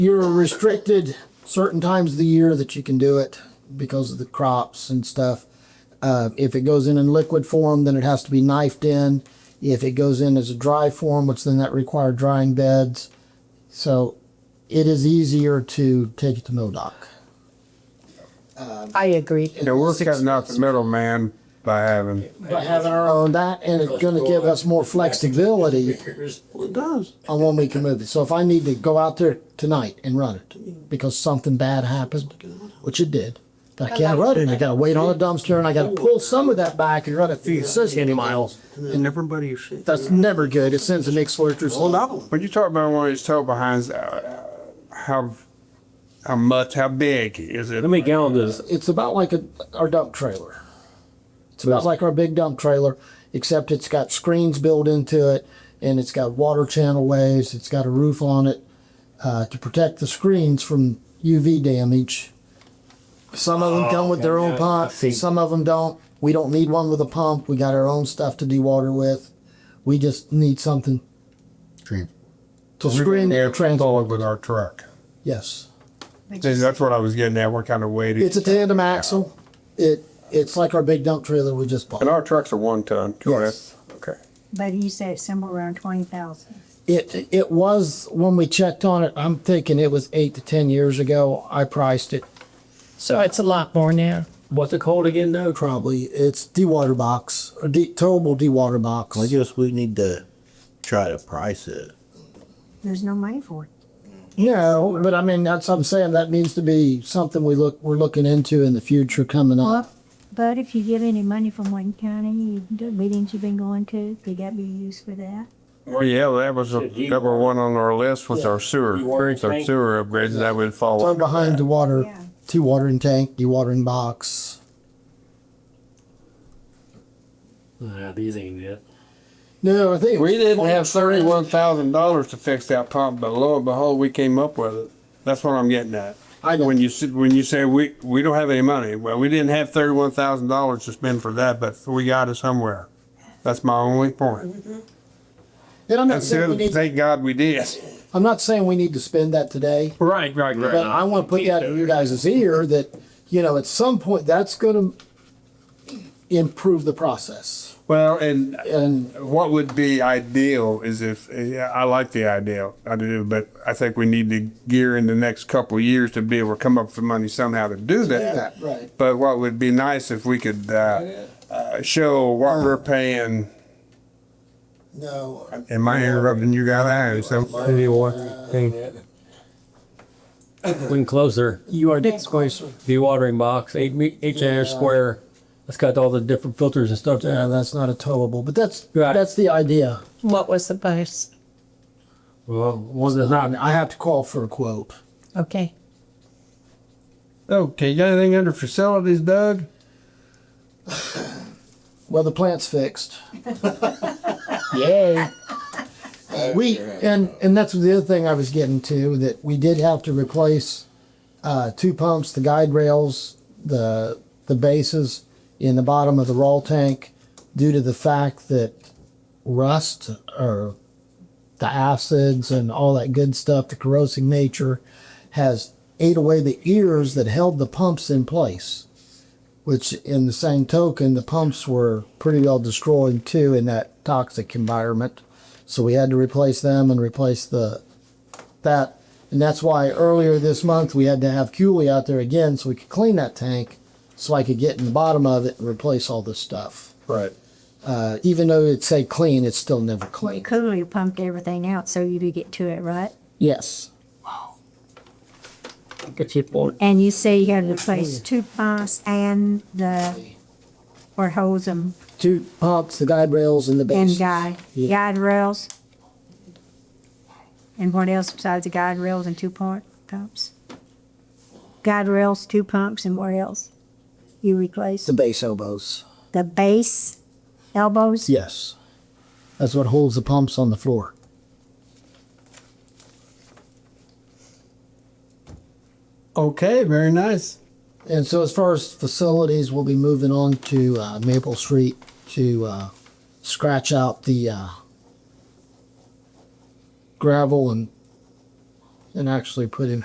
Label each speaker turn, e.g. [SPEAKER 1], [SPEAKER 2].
[SPEAKER 1] you're restricted certain times of the year that you can do it because of the crops and stuff. Uh, if it goes in in liquid form, then it has to be knifed in. If it goes in as a dry form, which then that require drying beds. So it is easier to take it to MoDOC.
[SPEAKER 2] I agree.
[SPEAKER 3] Yeah, we'll cut out the middleman by having.
[SPEAKER 1] By having our own that, and it's going to give us more flexibility
[SPEAKER 3] It does.
[SPEAKER 1] on when we can move it. So if I need to go out there tonight and run it because something bad happened, which it did, but I can't run it. I got to wait on a dumpster and I got to pull some of that back and run it through the city miles.
[SPEAKER 4] And everybody should.
[SPEAKER 1] That's never good. It sends the mixed slurters.
[SPEAKER 4] Well, no.
[SPEAKER 3] When you talk about one of these tow behinds, uh, uh, how, how much, how big is it?
[SPEAKER 5] How many gallons is it?
[SPEAKER 1] It's about like a, our dump trailer. It's about like our big dump trailer, except it's got screens built into it and it's got water channel waves. It's got a roof on it uh, to protect the screens from UV damage. Some of them come with their own
[SPEAKER 5] Oh, yeah, I
[SPEAKER 1] pump,
[SPEAKER 5] see.
[SPEAKER 1] some of them don't. We don't need one with a pump. We got our own stuff to dewater with. We just need something to screen their transport.
[SPEAKER 3] with our truck.
[SPEAKER 1] Yes.
[SPEAKER 3] See, that's what I was getting at. What kind of weight
[SPEAKER 1] It's
[SPEAKER 3] is
[SPEAKER 1] a tandem axle. It It's like our big dump trailer we just bought.
[SPEAKER 3] And our trucks are one ton.
[SPEAKER 1] Yes.
[SPEAKER 3] Okay.
[SPEAKER 6] But he said somewhere around twenty thousand.
[SPEAKER 1] It it was when we checked on it. I'm thinking it was eight to ten years ago. I priced it
[SPEAKER 2] So it's a lot more now.
[SPEAKER 5] What's it called again, though?
[SPEAKER 1] probably. It's dewater box, a de- towable dewater box.
[SPEAKER 4] I guess we need to try to price it.
[SPEAKER 6] There's no money for it.
[SPEAKER 1] No, but I mean that's what I'm saying. That needs to be something we look we're looking into in the future coming
[SPEAKER 6] Well,
[SPEAKER 1] up.
[SPEAKER 6] but if you get any money from Wayne County, you- the meetings you've been going to, they got to be used for that.
[SPEAKER 3] Well, Oh, yeah, that was
[SPEAKER 5] Did you-
[SPEAKER 3] number one on our list was our sewer,
[SPEAKER 5] You
[SPEAKER 3] our
[SPEAKER 5] water tank?
[SPEAKER 3] sewer upgrades that would fall.
[SPEAKER 1] Well,
[SPEAKER 3] under
[SPEAKER 1] behind the water,
[SPEAKER 6] Yeah.
[SPEAKER 1] dewatering tank, dewatering box.
[SPEAKER 5] Nah, these ain't it.
[SPEAKER 1] No, I think
[SPEAKER 3] We didn't have thirty-one thousand dollars to fix that pump, but lo and behold, we came up with it. That's what I'm getting at.
[SPEAKER 1] I know.
[SPEAKER 3] When you said, when you say we, we don't have any money, well, we didn't have thirty-one thousand dollars to spend for that, but we got it somewhere. That's my only point.
[SPEAKER 1] And I'm not
[SPEAKER 3] And
[SPEAKER 1] saying we
[SPEAKER 3] so,
[SPEAKER 1] need.
[SPEAKER 3] thank God we did.
[SPEAKER 1] I'm not saying we need to spend that today.
[SPEAKER 5] Right, right, right.
[SPEAKER 1] But I want to put that in your guys' ear that, you know, at some point, that's going to improve the process.
[SPEAKER 3] Well, and
[SPEAKER 1] And
[SPEAKER 3] what would be ideal is if, yeah, I like the idea, I do, but I think we need to gear in the next couple of years to be able to come up with the money somehow to do that.
[SPEAKER 1] Yeah, right.
[SPEAKER 3] But what would be nice if we could, uh, uh, show what we're paying,
[SPEAKER 1] no,
[SPEAKER 3] am I interrupting you guys? I am, so.
[SPEAKER 5] We can close there.
[SPEAKER 7] You are closer.
[SPEAKER 5] Dewatering box, eight me, eight inch square. That's got all the different filters and stuff
[SPEAKER 1] yeah,
[SPEAKER 5] there.
[SPEAKER 1] that's not a towable, but that's,
[SPEAKER 5] Right.
[SPEAKER 1] that's the idea.
[SPEAKER 2] What was the price?
[SPEAKER 5] Well, was it
[SPEAKER 1] I
[SPEAKER 5] not?
[SPEAKER 1] mean, I have to call for a quote.
[SPEAKER 2] Okay.
[SPEAKER 3] Okay, you got anything under facilities, Doug?
[SPEAKER 1] Well, the plant's fixed.
[SPEAKER 5] Yay.
[SPEAKER 1] We, and, and that's the other thing I was getting to, that we did have to replace, uh, two pumps, the guide rails, the, the bases in the bottom of the raw tank due to the fact that rust or the acids and all that good stuff, the corrosive nature has ate away the ears that held the pumps in place. Which in the same token, the pumps were pretty well destroyed too in that toxic environment. So we had to replace them and replace the that. And that's why earlier this month we had to have Cooley out there again so we could clean that tank so I could get in the bottom of it and replace all this stuff.
[SPEAKER 5] Right.
[SPEAKER 1] Uh, even though it say clean, it's still never
[SPEAKER 6] Well, you
[SPEAKER 1] clean.
[SPEAKER 6] clearly pumped everything out so you could get to it, right?
[SPEAKER 1] Yes.
[SPEAKER 2] Good people.
[SPEAKER 6] And you say you had to replace two pumps and the, or hose them,
[SPEAKER 1] Two pumps, the guide rails, and the base.
[SPEAKER 6] and guide, guide rails. And what else besides the guide rails and two pump, pumps? Guide rails, two pumps, and what else? You replaced
[SPEAKER 1] The base elbows.
[SPEAKER 6] the base elbows?
[SPEAKER 1] Yes. That's what holds the pumps on the floor.
[SPEAKER 3] Okay, very nice.
[SPEAKER 1] And so, as far as facilities, we'll be moving on to uh, Maple Street to uh, scratch out the uh, gravel and and actually put in